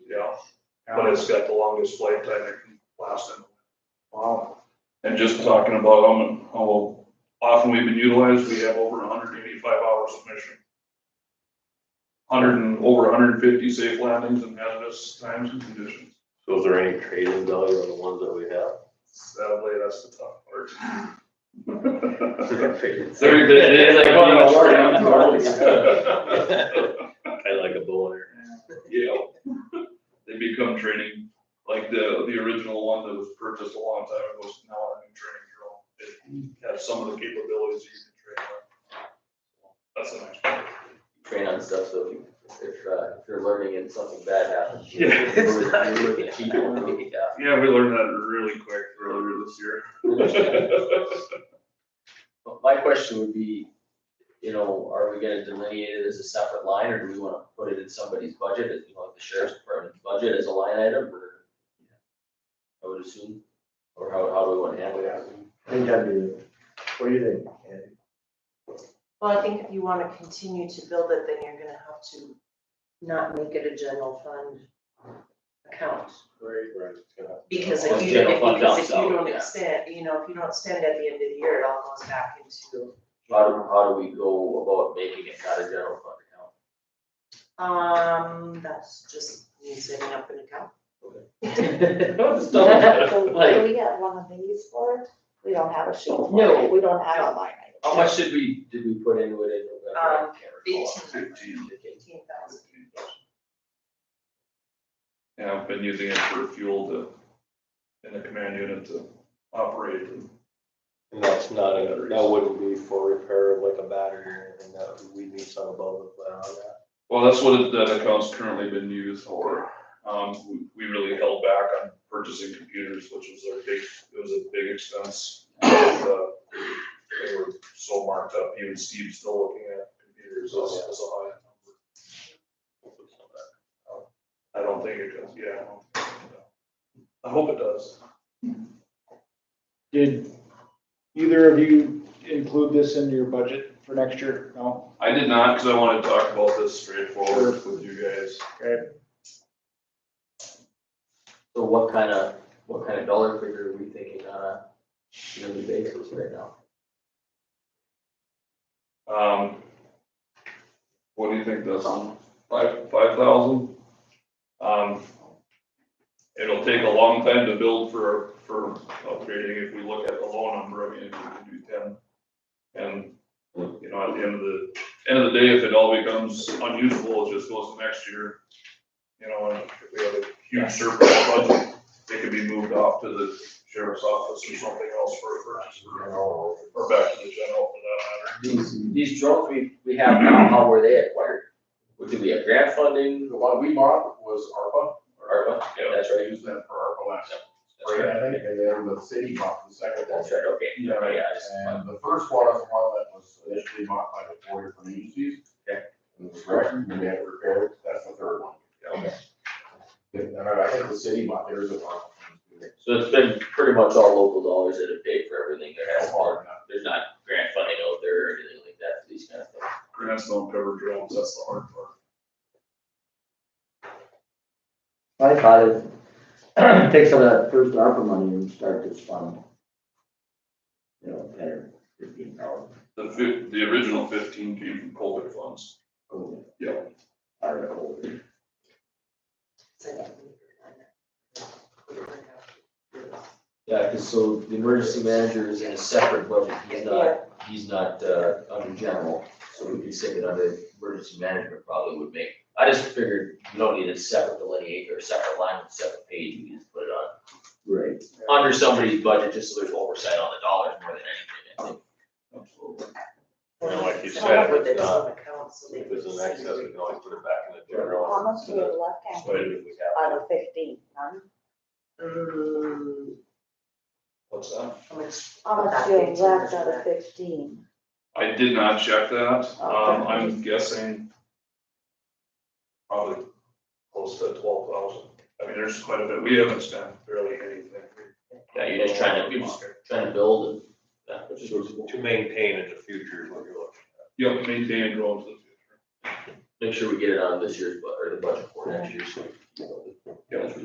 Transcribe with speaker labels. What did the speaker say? Speaker 1: Um,
Speaker 2: it's got the longest flight time it can last in. Wow.
Speaker 1: And just talking about how, mon- how often we've been utilized, we have over hundred and eighty-five hours of mission. Hundred and, over hundred and fifty safe landings and hazardous times and conditions.
Speaker 3: So is there any trade-in value on the ones that we have?
Speaker 2: Sadly, that's the tough part.
Speaker 1: There- there- there's like one of those-
Speaker 3: I like a bowler.
Speaker 1: Yeah. They become training, like the, the original one that was purchased a long time ago, is now a new training drill. It has some of the capabilities you can train on. That's a nice part.
Speaker 4: train on stuff, so if, you- if, uh, if you're learning and something bad happens. you-
Speaker 1: Yeah,
Speaker 4: you would- you would keep it, yeah.
Speaker 1: Yeah, we learned that really quick earlier this year.
Speaker 4: But My question would be, you know, are we gonna delineate it as a separate line, or do we wanna put it in somebody's budget, as, you know, like the sheriff's department's budget as a line item, or? I would assume, or how, how do we wanna handle that?
Speaker 5: I think that'd be, what do you think? Andy?
Speaker 6: Well, I think if you wanna continue to build it, then you're gonna have to not make it a general fund account. Because
Speaker 4: Well,
Speaker 6: if you,
Speaker 4: general fund
Speaker 6: because if
Speaker 4: dumps
Speaker 6: you
Speaker 4: out,
Speaker 6: don't
Speaker 4: yeah.
Speaker 6: expend, you know, if you don't spend at the end of the year, it all goes back into,
Speaker 4: How do, how do we go about making it not a general fund account?
Speaker 6: um, that's just me setting up an account.
Speaker 4: Just double check,
Speaker 7: Do
Speaker 4: Like,
Speaker 7: we have one of these for it? We don't have a sheet for it.
Speaker 4: No.
Speaker 7: We don't have a line item.
Speaker 4: how much did we, did we put into it in November? I
Speaker 6: Um,
Speaker 4: can't recall.
Speaker 6: Eighteen, eighteen thousand.
Speaker 1: Yeah, I've been using it for fuel to, in the command unit to operate and
Speaker 3: And that's not, a- that wouldn't be for repair of like a battery or anything, that we need some above the plan on that.
Speaker 1: Well, that's what it- that account's currently been used for. Um, we, we really held back on purchasing computers, which was our big, it was a big expense. And, uh, They were so marked up, even Steve's still looking at computers, that's, that's a high number. We'll put some back. I don't think it does, yeah. I don't think it does. I hope it does.
Speaker 8: Did either of you include this in your budget for next year? No?
Speaker 1: I did not, because I want to talk about this straightforward with you guys.
Speaker 4: So what kind of, what kind of dollar figure are we thinking on a yearly basis right now?
Speaker 1: Um, what do you think, Dustin? Five, five thousand? Um, it'll take a long time to build for, for upgrading if we look at the low number, I mean, if we could do ten. And, you know, at the end of the, end of the day, if it all becomes unusable, it just goes to next year. You know, and if we have a huge surplus budget, it could be moved off to the sheriff's office or something else for, for, or back to the general for that matter.
Speaker 4: These, these drones we, we have now, how were they acquired? Well, Did we have grant funding
Speaker 9: The one we bought was ARPA,
Speaker 4: or what?
Speaker 1: Yeah.
Speaker 4: That's
Speaker 9: I
Speaker 4: right,
Speaker 9: used that for ARPA last
Speaker 4: that's
Speaker 9: year.
Speaker 4: right,
Speaker 9: I think, and then the city bought the second one.
Speaker 4: that's right, okay.
Speaker 1: Yeah.
Speaker 4: Right, yeah, I just-
Speaker 9: And the first one is the one that was initially bought by the four different agencies.
Speaker 4: Okay.
Speaker 9: And it was wrecked, and we had to repair it, that's the third one.
Speaker 4: Okay.
Speaker 9: And I think the city bought theirs at ARPA.
Speaker 4: So it's been pretty much all local dollars that have paid for everything. There
Speaker 9: That's
Speaker 4: has,
Speaker 9: hard enough.
Speaker 4: there's not grant funding out there or anything like that for these kind of things.
Speaker 1: grants don't cover drones, that's the hard part.
Speaker 5: My thought is, take some of that first ARPA money and start this fund. You know, ten or fifteen thousand.
Speaker 1: The fif, the original fifteen came from COVID funds. Yeah.
Speaker 5: I don't know.
Speaker 4: Yeah, cause so the emergency manager is in a separate budget, he's not, he's not, uh, under general, so we could stick it under emergency management probably would make. I just figured you don't need a separate delineate or a separate line, with a separate page, you can just put it on,
Speaker 5: Right.
Speaker 4: under somebody's budget, just so there's oversight on the dollars more than anything, I think.
Speaker 1: Absolutely.
Speaker 3: And like you
Speaker 6: So
Speaker 3: said,
Speaker 6: hopefully
Speaker 3: it's
Speaker 6: they just
Speaker 3: not-
Speaker 6: have accounts so they
Speaker 3: If there's
Speaker 6: can
Speaker 3: an
Speaker 6: see
Speaker 3: excess, we can always put it back in the general.
Speaker 7: How much do we left
Speaker 3: But
Speaker 7: after,
Speaker 3: if we have-
Speaker 7: out of fifteen, none?
Speaker 6: Mm,
Speaker 1: What's that?
Speaker 6: how much?
Speaker 7: How much
Speaker 6: about
Speaker 7: do we
Speaker 6: 15
Speaker 7: left
Speaker 6: is
Speaker 7: out of
Speaker 6: left?
Speaker 7: fifteen?
Speaker 1: I did not check that, um, I'm guessing probably close to twelve thousand. I mean, there's quite a bit, we haven't spent barely anything. Um,
Speaker 4: Yeah, you're just trying to, you're just trying to build and, yeah, which is reasonable.
Speaker 3: To maintain in the future is what you're looking at.
Speaker 1: Yeah, maintain drones in the future.
Speaker 4: Make sure we get it on this year's, bu- or the budget for next year, so we can build it.